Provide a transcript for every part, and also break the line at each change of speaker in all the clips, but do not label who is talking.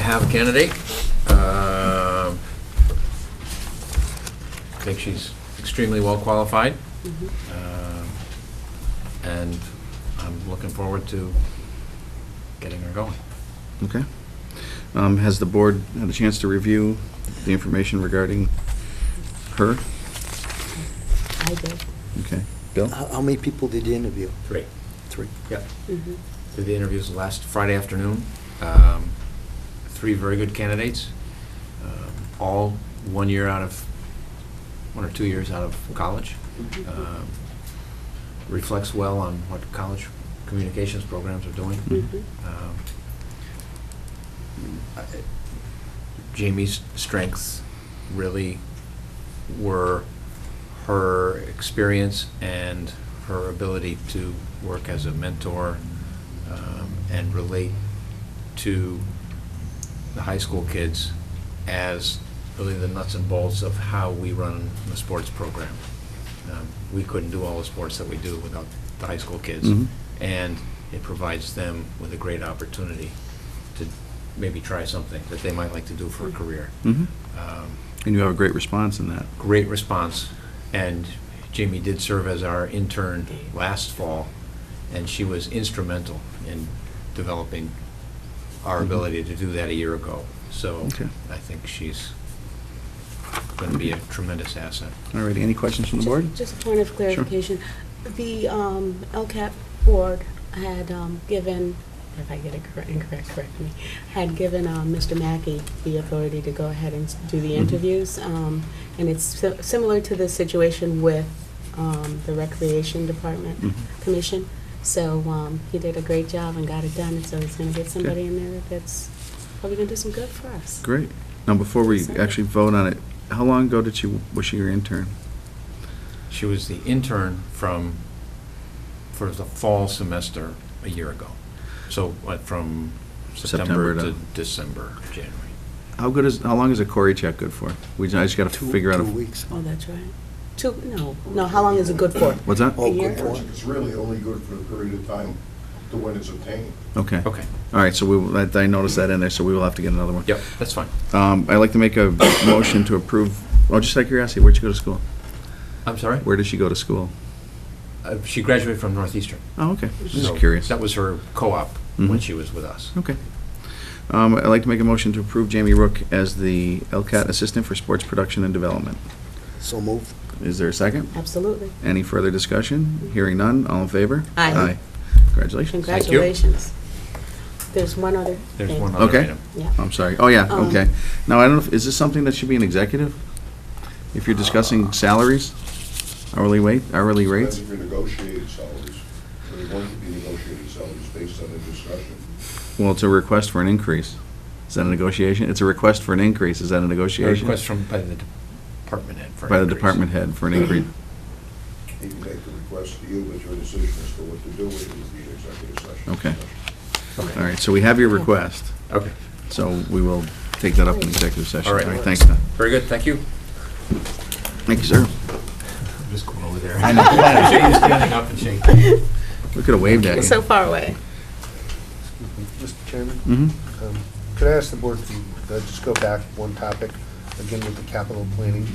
have a candidate. Um, I think she's extremely well-qualified. Um, And I'm looking forward to getting her going.
Okay. Um, Has the board had a chance to review the information regarding her?
I did.
Okay. Bill?
How how many people did you interview?
Great.
Three.
Yep. Did the interviews last Friday afternoon. Um, Three very good candidates, um, all one year out of, one or two years out of college. Um, Reflects well on what college communications programs are doing.
Mhm.
Um, I- Jamie's strengths really were her experience and her ability to work as a mentor um, and relate to the high school kids as really the nuts and bolts of how we run the sports program. Um, We couldn't do all the sports that we do without the high school kids.
Mhm.
And it provides them with a great opportunity to maybe try something that they might like to do for a career.
Mhm.
Um,
And you have a great response in that.
great response. And Jamie did serve as our intern last fall, and she was instrumental in developing our
Mhm.
ability to do that a year ago. So
Okay.
I think she's going to be a tremendous asset.
All righty, any questions from the board?
Just- Just a point of clarification. The um, LCAP board had um, given, if I get it correct, incorrect, correct me, had given um, Mr. Mackey the authority to go ahead and s- do the
Mhm.
interviews. um, And it's si- similar to the situation with um, the Recreation
Mhm.
Department Commission. So um, he did a great job and got it done, and so he's going to get somebody in there that's probably going to do some good for us.
Great. Now, before we
Sorry.
actually vote on it, how long ago did she, was she your intern?
She was the intern from, for the fall semester a year ago. So what, from
September
September
to-
to December, January?
How good is, how long is a Cory check good for? We, ju- I just gotta
Two-
figure out,
Two
a-
weeks.
Oh, that's right. Two, no, no, how long is it good for?
what's that?
Oh,
A
good
year?
for it.
It's really only good for the period of time the one is obtained.
Okay.
Okay,
All right, so we, will- I I noticed that in there, so we will have to get another one.
yep, that's fine.
Um, I'd like to make a motion to approve, oh, just out of curiosity, where'd she go to school?
I'm sorry?
Where did she go to school?
Uh, She graduated from Northeastern.
Oh, okay, just
So
curious.
That was her co-op when
Mhm.
she was with us.
Okay. Um, I'd like to make a motion to approve Jamie Rook as the LCAT Assistant for Sports Production and Development.
So moved.
Is there a second?
Absolutely.
Any further discussion? Hearing none, all in favor?
Aye.
Congratulations.
Thank you.
Congratulations. There's one other thing.
There's one other
Okay.
item.
Yeah.
I'm sorry, oh, yeah,
Um,
okay. Now, I don't know, if is this something that should be an executive? If you're
Uh,
discussing salaries, hourly wait, hourly
That's
rates?
if you're negotiating salaries, or they want to be negotiating salaries based on the discussion.
Well, it's a request for an increase. Is that a negotiation? It's a request for an increase, is that a
A
negotiation?
request from, by the department head for an
By the
increase.
department head for an increase.
He can make the request to you, but your decision as to what to do with it would be an executive session.
Okay. All
Okay.
right, so we have your request,
Okay,
so we will take that up in executive session.
All right.
Thanks, Don.
very good, thank you.
Thank you, sir.
I'm just going over there.
I know.
Shane's standing up and shaking.
We could have waved at you.
So far away.
Mr. Chairman,
Mhm.
um, could I ask the board to uh, just go back one topic, again with the capital planning?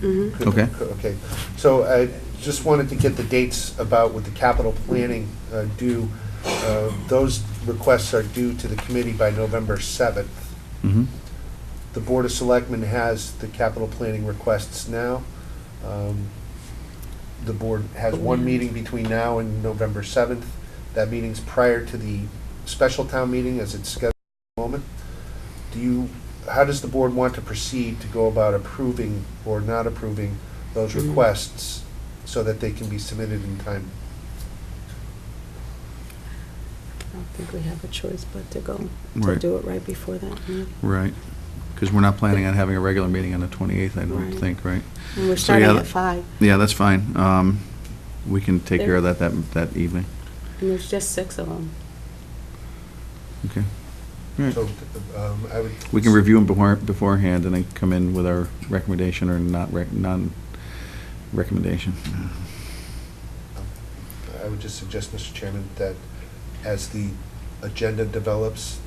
Mhm.
Could-
Okay.
could- Okay, so I just wanted to get the dates about what the capital planning uh, due. Uh, Those requests are due to the committee by November 7th.
Mhm.
The Board of Selectmen has the capital planning requests now. Um, The board has one meeting between now and November 7th. That meeting's prior to the special town meeting as it's scheduled at the moment. Do you, how does the board want to proceed to go about approving or not approving those
Mhm.
requests so that they can be submitted in time?
I don't think we have a choice but to go, to
Right.
do it right before that. yeah.
Right, because we're not planning on having a regular meeting on the 28th, I don't
Right.
think, right?
And we're
So,
starting
yeah,
at five,
Yeah, that's fine. Um, We can take care of that that that evening.
and there's just six of them.
Okay. All right.
So um, I would.
Hmm. We can review them before- beforehand and then come in with our recommendation or not, rec- non-recommendation.
I would just suggest, Mr. Chairman, that as the agenda develops,